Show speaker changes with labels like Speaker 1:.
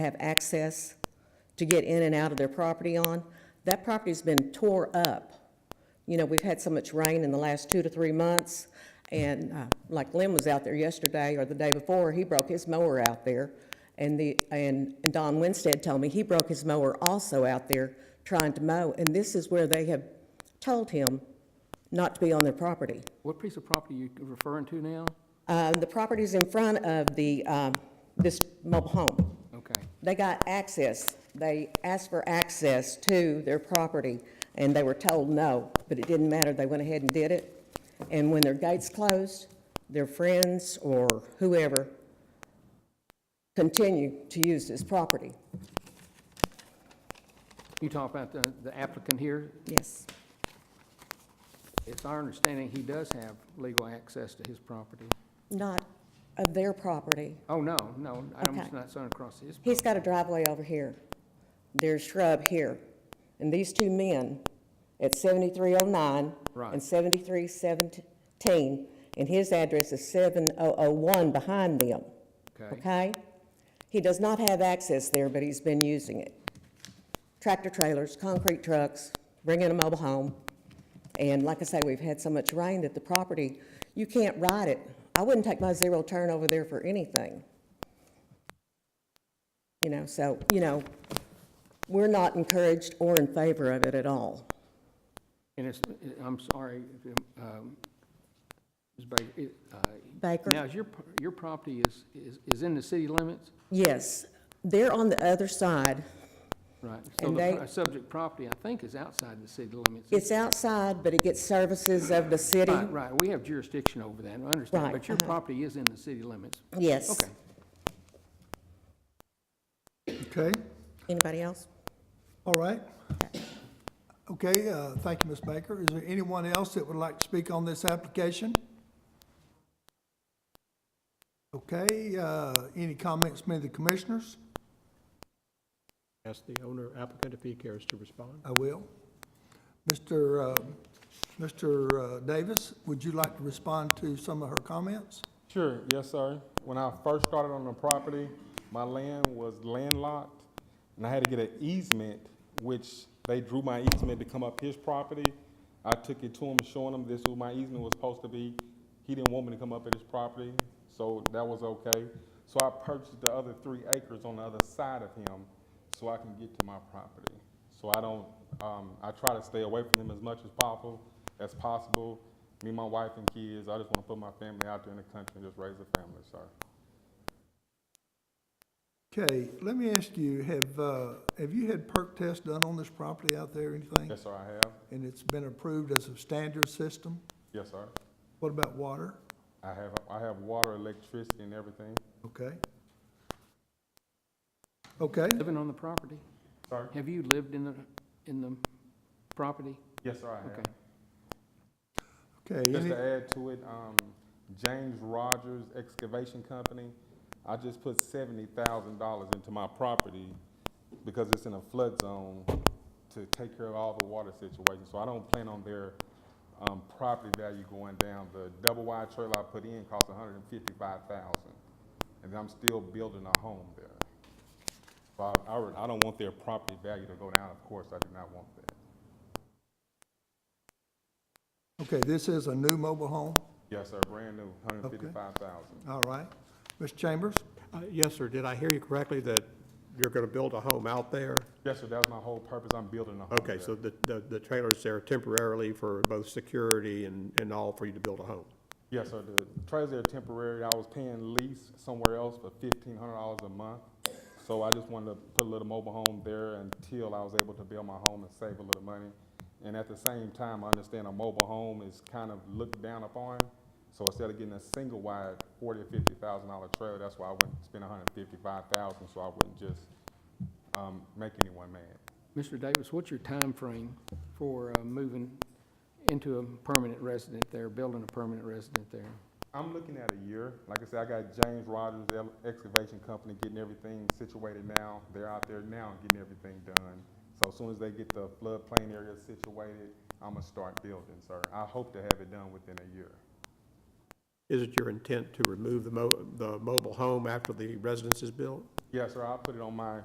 Speaker 1: have access to get in and out of their property on. That property's been tore up. You know, we've had so much rain in the last two to three months, and uh, like Lynn was out there yesterday or the day before, he broke his mower out there. And the, and and Don Winstead told me he broke his mower also out there trying to mow, and this is where they have told him not to be on their property.
Speaker 2: What piece of property are you referring to now?
Speaker 1: Uh, The property's in front of the, um, this mobile home.
Speaker 2: Okay.
Speaker 1: They got access, they asked for access to their property, and they were told no, but it didn't matter, they went ahead and did it. And when their gates closed, their friends or whoever continued to use this property.
Speaker 2: You talk about the the applicant here.
Speaker 1: Yes.
Speaker 2: It's our understanding he does have legal access to his property.
Speaker 1: Not of their property.
Speaker 2: Oh, no, no, I'm
Speaker 1: Okay.
Speaker 2: not signing across his.
Speaker 1: He's got a driveway over here. There's shrub here. And these two men at 7309
Speaker 2: Right.
Speaker 1: and 7317, and his address is 7001 behind them,
Speaker 2: Okay,
Speaker 1: okay? He does not have access there, but he's been using it. Tractor trailers, concrete trucks, bringing a mobile home. And like I say, we've had so much rain that the property, you can't ride it. I wouldn't take my zero turn over there for anything. You know, so, you know, we're not encouraged or in favor of it at all.
Speaker 2: and it's, I'm sorry, um, Ms. Baker, it, uh, now,
Speaker 1: Baker?
Speaker 2: is your, p- your property is, is is in the city limits?
Speaker 1: Yes, they're on the other side.
Speaker 2: Right. So
Speaker 1: And
Speaker 2: the
Speaker 1: they-
Speaker 2: pro- subject property, I think, is outside the city limits.
Speaker 1: It's outside, but it gets services of the city.
Speaker 2: Right, right, we have jurisdiction over that, I understand,
Speaker 1: Right,
Speaker 2: but your
Speaker 1: uh-huh.
Speaker 2: property is in the city limits.
Speaker 1: Yes.
Speaker 2: Okay,
Speaker 3: Okay,
Speaker 1: Anybody else?
Speaker 3: all right. Okay, uh, thank you, Ms. Baker. Is there anyone else that would like to speak on this application? Okay, uh, any comments made by the commissioners?
Speaker 4: Ask the owner applicant if he cares to respond.
Speaker 3: I will. Mr. uh, Mr. uh, Davis, would you like to respond to some of her comments?
Speaker 5: Sure, yes, sir. When I first started on the property, my land was landlocked, and I had to get an easement, which they drew my easement to come up his property. I took it to him, showing him this is what my easement was supposed to be. He didn't want me to come up at his property, so that was okay. So I purchased the other three acres on the other side of him so I can get to my property. So I don't, um, I try to stay away from them as much as possible, as possible. Me, my wife and kids, I just want to put my family out there in the country and just raise a family, sir.
Speaker 3: Okay, let me ask you, have, uh, have you had perk tests done on this property out there, or anything?
Speaker 5: Yes, sir, I have.
Speaker 3: And it's been approved as a standard system?
Speaker 5: Yes, sir.
Speaker 3: What about water?
Speaker 5: I have, I have water, electricity and everything.
Speaker 3: Okay. Okay,
Speaker 2: living on the property?
Speaker 5: Sir?
Speaker 2: Have you lived in the, in the property?
Speaker 5: Yes, sir, I have.
Speaker 2: Okay.
Speaker 3: okay,
Speaker 5: Just
Speaker 3: any-
Speaker 5: to add to it, um, James Rogers Excavation Company, I just put seventy thousand dollars into my property because it's in a flood zone to take care of all the water situations. So I don't plan on their, um, property value going down. The double wide trailer I put in cost $155,000, and I'm still building a home there. So I, I, re- I don't want their property value to go down, of course, I do not want that.
Speaker 3: okay, this is a new mobile home,
Speaker 5: Yes, sir, brand new, $155,000.
Speaker 3: all right. Ms. Chambers,
Speaker 4: Uh, Yes, sir, did I hear you correctly that you're going to build a home out there?
Speaker 5: Yes, sir, that was my whole purpose, I'm building a home
Speaker 4: Okay,
Speaker 5: there.
Speaker 4: so the, the the trailer's there temporarily for both security and, and all for you to build a home?
Speaker 5: Yes, sir, the trailers are temporary, I was paying lease somewhere else for fifteen hundred dollars a month. So I just wanted to put a little mobile home there until I was able to build my home and save a little money. And at the same time, I understand a mobile home is kind of looked down upon. So instead of getting a single wide forty or fifty thousand dollar trailer, that's why I wouldn't spend $155,000 so I wouldn't just, um, make anyone mad.
Speaker 2: Mr. Davis, what's your time frame for uh, moving into a permanent resident there, building a permanent resident there?
Speaker 5: I'm looking at a year. Like I said, I got James Rogers Ele- Excavation Company getting everything situated now. They're out there now getting everything done. So as soon as they get the floodplain area situated, I'm gonna start building, sir. I hope to have it done within a year.
Speaker 4: Is it your intent to remove the mo, the mobile home after the residence is built?
Speaker 5: Yes, sir, I'll put it on my